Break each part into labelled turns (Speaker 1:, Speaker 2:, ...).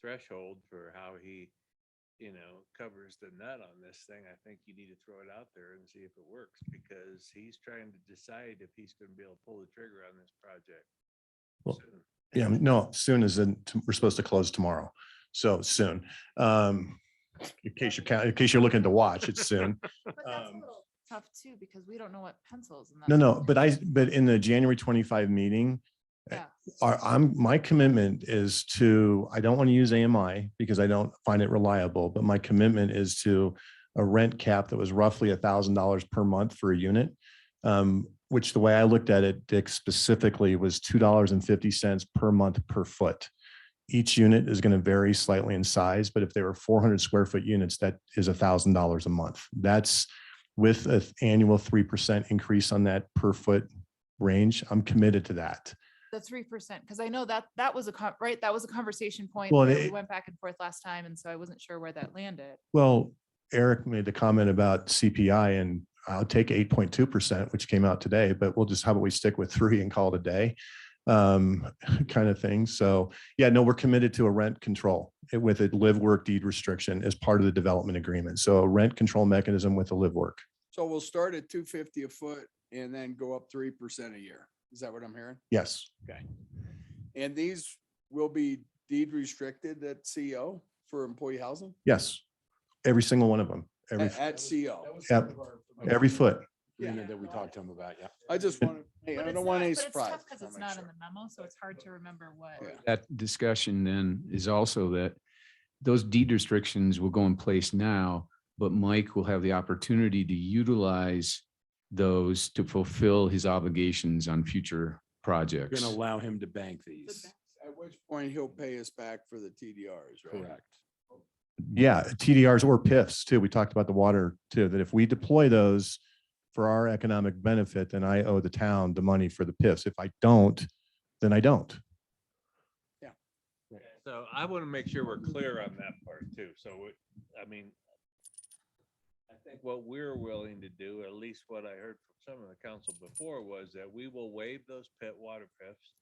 Speaker 1: threshold for how he, you know, covers the nut on this thing, I think you need to throw it out there and see if it works because he's trying to decide if he's gonna be able to pull the trigger on this project.
Speaker 2: Well,
Speaker 1: soon.
Speaker 2: Yeah, no, soon is in, t- we're supposed to close tomorrow, so soon. Um, in case you're, ca- in case you're looking to watch, it's soon.
Speaker 3: But that's a
Speaker 2: Um,
Speaker 3: little tough too, because we don't know what pencils. and
Speaker 2: No,
Speaker 3: that-
Speaker 2: no, but I, but in the January twenty-five meeting,
Speaker 3: Yeah.
Speaker 2: our, I'm, my commitment is to, I don't want to use AMI because I don't find it reliable, but my commitment is to a rent cap that was roughly a thousand dollars per month for a unit. Um, which the way I looked at it, Dick specifically was two dollars and fifty cents per month per foot. Each unit is going to vary slightly in size, but if they were four hundred square foot units, that is a thousand dollars a month. That's with an annual three percent increase on that per foot range. I'm committed to that.
Speaker 3: The three percent, because I know that, that was a, con- right, that was a conversation point.
Speaker 2: Well,
Speaker 3: where
Speaker 2: and
Speaker 3: We
Speaker 2: it-
Speaker 3: went back and forth last time, and so I wasn't sure where that landed.
Speaker 2: Well, Eric made the comment about CPI and I'll take eight point two percent, which came out today, but we'll just, how about we stick with three and call it a day? Um, kind of thing. So, yeah, no, we're committed to a rent control with a live work deed restriction as part of the development agreement. So a rent control mechanism with a live work.
Speaker 4: So we'll start at two fifty a foot and then go up three percent a year. Is that what I'm hearing?
Speaker 2: Yes,
Speaker 4: And these will be deed restricted at CO for employee housing?
Speaker 2: yes. Every single one of them, every,
Speaker 4: At at CO.
Speaker 2: Yep. every foot.
Speaker 3: agreement that we talked
Speaker 5: to him about, yeah.
Speaker 4: I just want to, hey,
Speaker 3: But
Speaker 4: I
Speaker 3: it's
Speaker 4: don't want
Speaker 3: not-
Speaker 4: any
Speaker 3: but it's
Speaker 4: surprise.
Speaker 3: tough Because it's not in the memo, so it's hard to remember what.
Speaker 4: Yeah.
Speaker 5: That discussion then is also that those deed restrictions will go in place now, but Mike will have the opportunity to utilize those to fulfill his obligations on future
Speaker 6: You're
Speaker 5: projects.
Speaker 6: gonna allow him to bank these.
Speaker 4: At which point he'll pay us back for the TDRs, right?
Speaker 6: Correct.
Speaker 2: Yeah, TDRs or PIFs too. We talked about the water too, that if we deploy those for our economic benefit, then I owe the town the money for the PIFs. If I don't, then I don't.
Speaker 1: So I want to make sure we're clear on that part too. So, it- I mean, I think what we're willing to do, at least what I heard from some of the council before, was that we will waive those pit water PIFs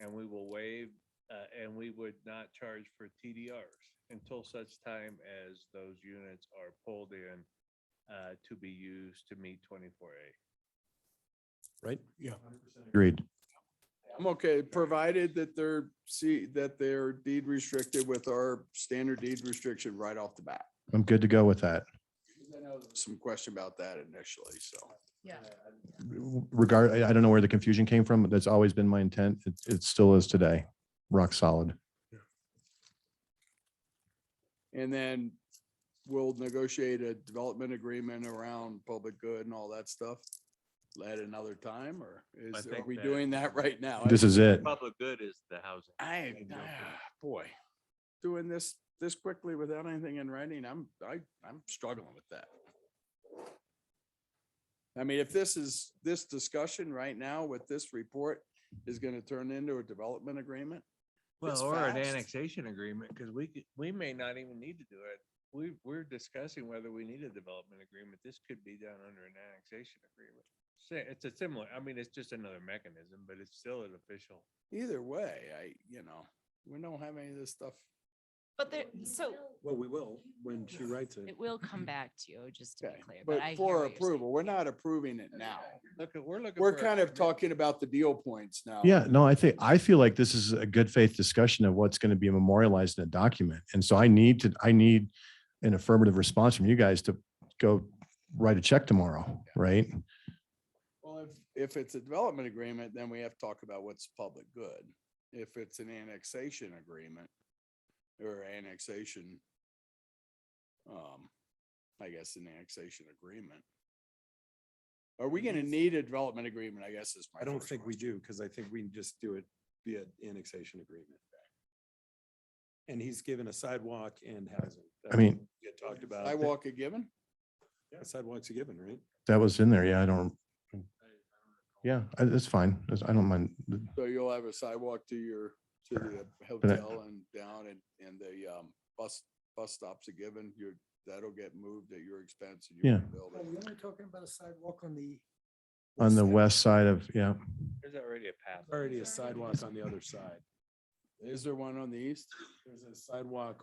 Speaker 1: and we will waive, uh, and we would not charge for TDRs until such time as those units are pulled in uh, to be used to meet twenty-four A.
Speaker 2: Right? Yeah. Agreed.
Speaker 4: I'm okay, provided that they're, see, that they're deed restricted with our standard deed restriction right off the bat.
Speaker 2: I'm good to go with that.
Speaker 4: Some question about that initially, so.
Speaker 3: Yeah.
Speaker 2: Regard, I I don't know where the confusion came from, but that's always been my intent. It, it still is today. Rock solid.
Speaker 4: And then we'll negotiate a development agreement around public good and all that stuff at another time, or
Speaker 1: I
Speaker 4: is, are
Speaker 1: think
Speaker 4: we
Speaker 1: that-
Speaker 4: doing that right now?
Speaker 2: This is it.
Speaker 1: Public good is the housing.
Speaker 4: I, ah, boy, doing this, this quickly without anything in writing, I'm, I, I'm struggling with that. I mean, if this is, this discussion right now with this report is gonna turn into a development agreement, It's
Speaker 1: Well, or an
Speaker 4: fast.
Speaker 1: annexation agreement, because we, could- we may not even need to do it. We, we're discussing whether we need a development agreement. This could be done under an annexation agreement. Sa- It's a similar, I mean, it's just another mechanism, but it's still an official.
Speaker 4: either way, I, you know, we don't have any of this stuff.
Speaker 3: But there, so
Speaker 6: Well, we will when she writes
Speaker 7: It will come back to you, just to be
Speaker 4: Okay,
Speaker 7: clear.
Speaker 4: but
Speaker 7: I hear
Speaker 4: for
Speaker 7: what you're saying.
Speaker 4: approval, we're not approving it now.
Speaker 1: Look, at- we're looking.
Speaker 4: We're
Speaker 1: for a
Speaker 4: kind of
Speaker 1: commitment.
Speaker 4: talking about the deal points now.
Speaker 2: Yeah, no, I think, I feel like this is a good faith discussion of what's going to be memorialized in a document. And so I need to, I need an affirmative response from you guys to go write a check tomorrow, right?
Speaker 4: Well, if, if it's a development agreement, then we have to talk about what's public good. If it's an annexation agreement or annexation, um, I guess an annexation agreement. Are we gonna need a development agreement? I guess is my.
Speaker 6: I don't
Speaker 4: first
Speaker 6: think we
Speaker 4: question.
Speaker 6: do, because I think we can just do it via annexation agreement. And he's given a sidewalk and housing. That's
Speaker 2: I mean-
Speaker 6: what we had Talked about.
Speaker 4: Sidewalk a given?
Speaker 6: Yeah, Sidewalks are given, right?
Speaker 2: That was in there. Yeah, I don't. Yeah, I- that's fine. That's- I don't mind.
Speaker 4: So you'll have a sidewalk to your, to the hotel and down and, and the, um, bus, bus stops a given. Your, that'll get moved at your expense. and you
Speaker 2: Yeah.
Speaker 4: rebuild
Speaker 8: Are
Speaker 4: it.
Speaker 8: we only talking about a sidewalk on the?
Speaker 2: On the
Speaker 8: side?
Speaker 2: west side of, yeah,
Speaker 1: There's already a path.
Speaker 6: Already a sidewalk on the other side.
Speaker 4: Is there one on the east?
Speaker 6: There's a sidewalk